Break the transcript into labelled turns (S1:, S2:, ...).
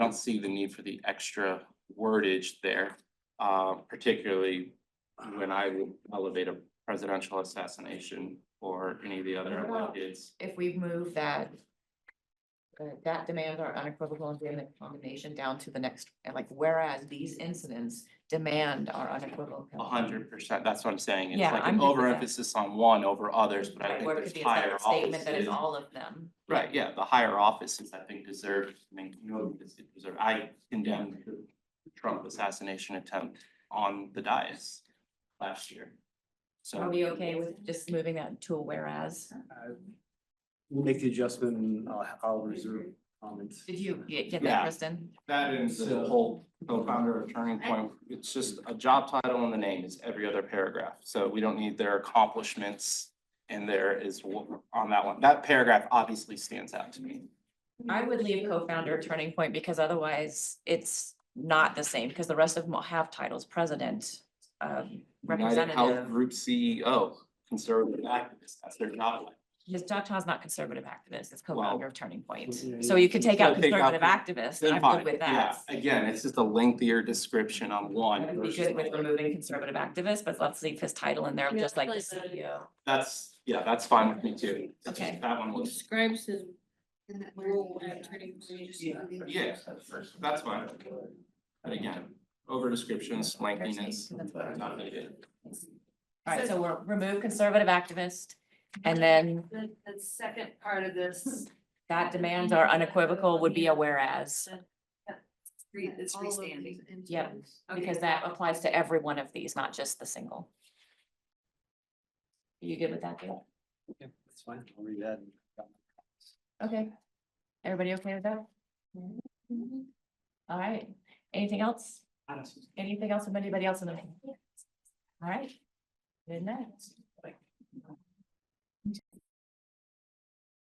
S1: don't see the need for the extra wordage there, uh, particularly when I would elevate a presidential assassination or any of the other electeds.
S2: if we move that. uh, That demand our unequivocal and vehement condemnation down to the next, and like whereas these incidents demand our unequivocal.
S1: A hundred percent, that's what I'm saying. It's
S2: Yeah,
S1: like
S2: I'm
S1: an
S2: good with that.
S1: overemphasis on one over others, but I
S2: Right,
S1: think
S2: Or it could
S1: there's
S2: be a
S1: higher
S2: separate statement that is
S1: offices.
S2: all of them.
S1: Right, yeah, the higher offices, I think, deserve, I mean, you know, this it deserve, I condemned the Trump assassination attempt on the dais last year.
S2: Are
S1: So,
S2: we okay with just moving that to a whereas?
S3: I- We'll make the adjustment and I'll, I'll reserve comments.
S2: Did you get get
S1: Yeah.
S2: that, Kristen?
S1: that is the whole co-founder or turning point, it's just a job title and the name is every other paragraph, so we don't need their accomplishments. And there is what, on that one, that paragraph obviously stands out to me.
S2: I would leave co-founder turning point because otherwise it's not the same because the rest of them all have titles, president, um,
S1: United Health
S2: representative.
S1: Group CEO, conservative activist, that's their job.
S2: His doctor is not conservative activist, it's co-founder of Turning Point.
S3: Yeah,
S2: So you could take out
S1: So take out
S2: conservative activist,
S1: Then
S2: and I'm
S1: fine,
S2: good with
S1: yeah,
S2: that.
S1: again, it's just a lengthier description on one.
S2: I'd be
S1: versus
S2: good with
S1: another.
S2: removing conservative activist, but let's leave his title in there,
S4: Yeah,
S2: just like the E
S4: like the-
S2: CEO.
S1: That's, yeah, that's fine with me too. It's just
S2: Okay.
S1: That one was,
S4: Describes his role at turning point.
S1: yeah, that's fine. But again, over descriptions, lengthiness, not needed.
S2: Alright, so we'll remove conservative activist, and then
S4: The, the second part of this.
S2: that demands are unequivocal would be a whereas.
S4: re- It's restanding.
S2: Yep, because that applies to every one of these, not just the single. You good with that, Gail?
S3: That's fine, I'll read that.
S2: Okay. Everybody okay with that? All right, anything else? Anything else from anybody else in the meeting? All right. Good night.